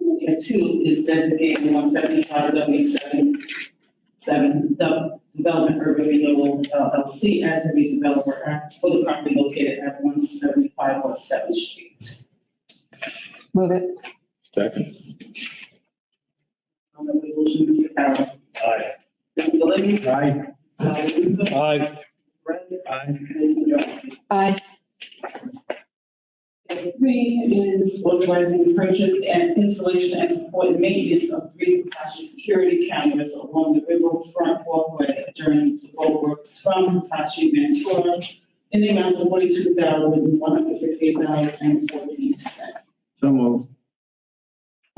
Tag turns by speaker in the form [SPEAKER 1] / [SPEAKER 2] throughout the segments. [SPEAKER 1] The two is designated one seventy-five W seven, seven, Dub- Development Urban Renewal LLC as a redeveloper for the property located at one seventy-five West Seventh Street.
[SPEAKER 2] Move it.
[SPEAKER 3] Second.
[SPEAKER 1] On the resolution, Mr. Carroll. Uh,
[SPEAKER 4] Aye.
[SPEAKER 1] Mr. Lewis.
[SPEAKER 4] Aye.
[SPEAKER 1] Dr. Russo.
[SPEAKER 4] Aye.
[SPEAKER 1] Brett.
[SPEAKER 4] Aye.
[SPEAKER 1] Mr. Dupree.
[SPEAKER 2] Aye.
[SPEAKER 1] Item Three is authorizing the purchase and installation and support and maintenance of three Hitachi security cameras along the riverfront walkway during the road works from Hitachi Ventura in the amount of forty-two thousand, one hundred sixty-eight dollars and fourteen cents.
[SPEAKER 4] So moved.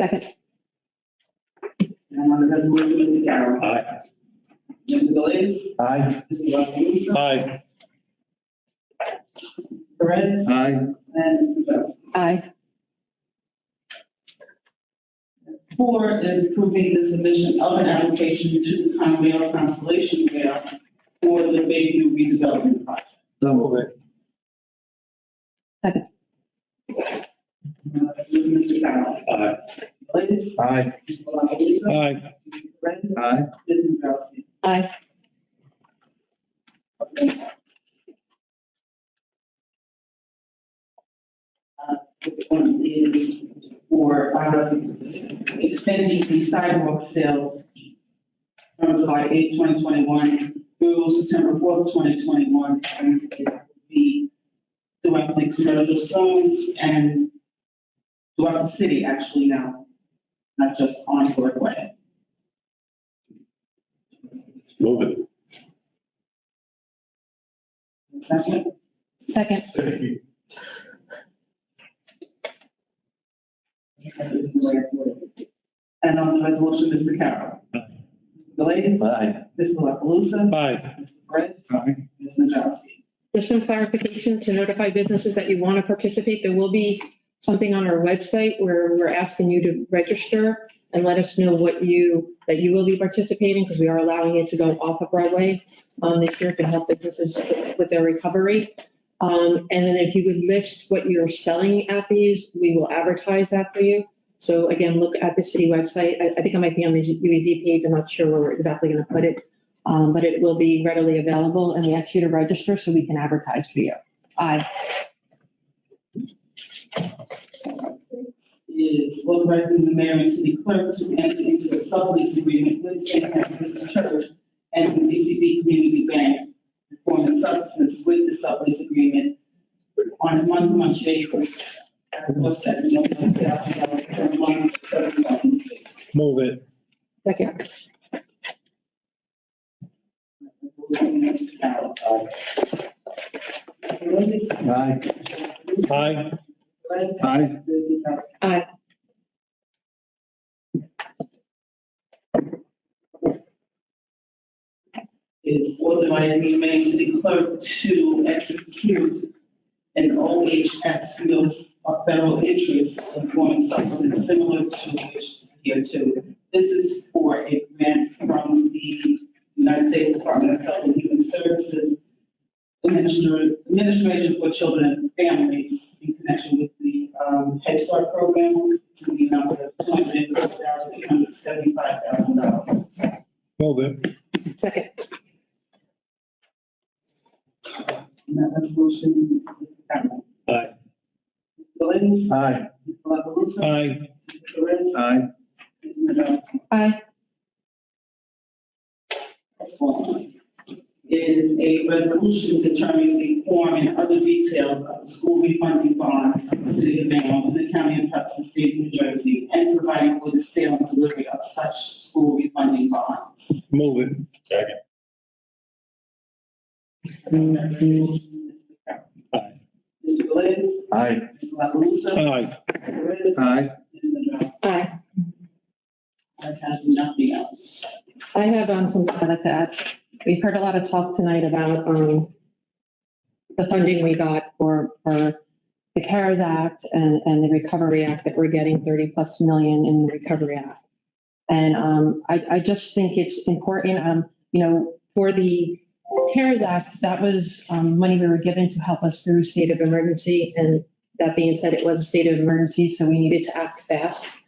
[SPEAKER 2] Second.
[SPEAKER 1] And on the resolution, Mr. Carroll.
[SPEAKER 4] Aye.
[SPEAKER 1] Mr. Galais.
[SPEAKER 4] Aye.
[SPEAKER 1] Mr. Robinson.
[SPEAKER 4] Aye.
[SPEAKER 1] Perez.
[SPEAKER 4] Aye.
[SPEAKER 1] And Mr. Dupree.
[SPEAKER 2] Aye.
[SPEAKER 1] Four is approving the submission of an application to the Conrail Constellation Rail for the Bayview redevelopment project.
[SPEAKER 4] So moved.
[SPEAKER 1] Uh, Mr. Carroll.
[SPEAKER 4] Aye.
[SPEAKER 1] Ladies.
[SPEAKER 4] Aye.
[SPEAKER 1] Mr. La Palusa?
[SPEAKER 4] Aye.
[SPEAKER 1] Mr. Perez?
[SPEAKER 4] Aye.
[SPEAKER 1] Ms. Nadrowski?
[SPEAKER 2] Aye.
[SPEAKER 1] Uh, The one is for um, extending the sidewalk sales from July 8, 2021 through September 4, 2021. And it will be throughout the commercial zones and throughout the city actually now, not just on Broadway.
[SPEAKER 3] Move it.
[SPEAKER 1] Second,
[SPEAKER 2] Second.
[SPEAKER 1] And on the resolution, Mr. Carroll. Galais.
[SPEAKER 4] Aye.
[SPEAKER 1] Mr. La Palusa.
[SPEAKER 4] Aye.
[SPEAKER 1] Mr. Perez.
[SPEAKER 4] Aye.
[SPEAKER 1] Ms. Nadrowski.
[SPEAKER 2] Just some clarification to notify businesses that you want to participate. There will be something on our website where we're asking you to register and let us know what you, that you will be participating because we are allowing it to go off of Broadway um, this year to help businesses with their recovery. Um, And then if you would list what you're selling at these, we will advertise that for you. So again, look at the city website. I, I think I might be on the UEZ page. I'm not sure where we're exactly going to put it. Um, but it will be readily available and we ask you to register so we can advertise for you. Aye.
[SPEAKER 1] Six Is authorizing the mayor and city clerk to enter into a sublease agreement with St. Catherine's Church and the DCB Community Bank for and substance with the sublease agreement on a month-to-month basis. At a cost that no one thousand dollars per month, seven thousand six.
[SPEAKER 4] Move it.
[SPEAKER 2] Second.
[SPEAKER 1] Mr. Carroll. Ladies.
[SPEAKER 4] Aye. Aye. Aye.
[SPEAKER 1] Mr. Carroll.
[SPEAKER 2] Aye.
[SPEAKER 1] Is authorizing the mayor and city clerk to execute an OHS note of federal interest in form of substance similar to which is here too. This is for a grant from the United States Department of Health and Human Services Administer- Administration for Children and Families in connection with the um, Head Start program to the amount of two hundred and four thousand, eight hundred and seventy-five thousand dollars.
[SPEAKER 4] Move it.
[SPEAKER 2] Second.
[SPEAKER 1] And that resolution, Mr. Campbell.
[SPEAKER 4] Aye.
[SPEAKER 1] Mr. Galais.
[SPEAKER 4] Aye.
[SPEAKER 1] Mr. La Palusa.
[SPEAKER 4] Aye.
[SPEAKER 1] Mr. Perez.
[SPEAKER 4] Aye.
[SPEAKER 1] Ms. Nadrowski.
[SPEAKER 2] Aye.
[SPEAKER 1] Next one is a resolution determining the form and other details of the school refunding bonds of the city of Bayonne and the county of Hudson, state of New Jersey, and providing for the sale and delivery of such school refunding bonds.
[SPEAKER 4] Move it.
[SPEAKER 3] Second.
[SPEAKER 1] And that resolution,
[SPEAKER 4] Aye.
[SPEAKER 1] Mr. Galais.
[SPEAKER 4] Aye.
[SPEAKER 1] Mr. La Palusa.
[SPEAKER 4] Aye.
[SPEAKER 1] Mr. Perez.
[SPEAKER 4] Aye.
[SPEAKER 1] Ms. Nadrowski.
[SPEAKER 2] Aye.
[SPEAKER 1] I have nothing else.
[SPEAKER 2] I have um, something I'd like to add. We've heard a lot of talk tonight about um, the funding we got for, for the CARES Act and, and the Recovery Act that we're getting 30 plus million in the Recovery Act. And um, I, I just think it's important, um, you know, for the CARES Act, that was um, money we were given to help us through state of emergency. And that being said, it was a state of emergency, so we needed to act fast.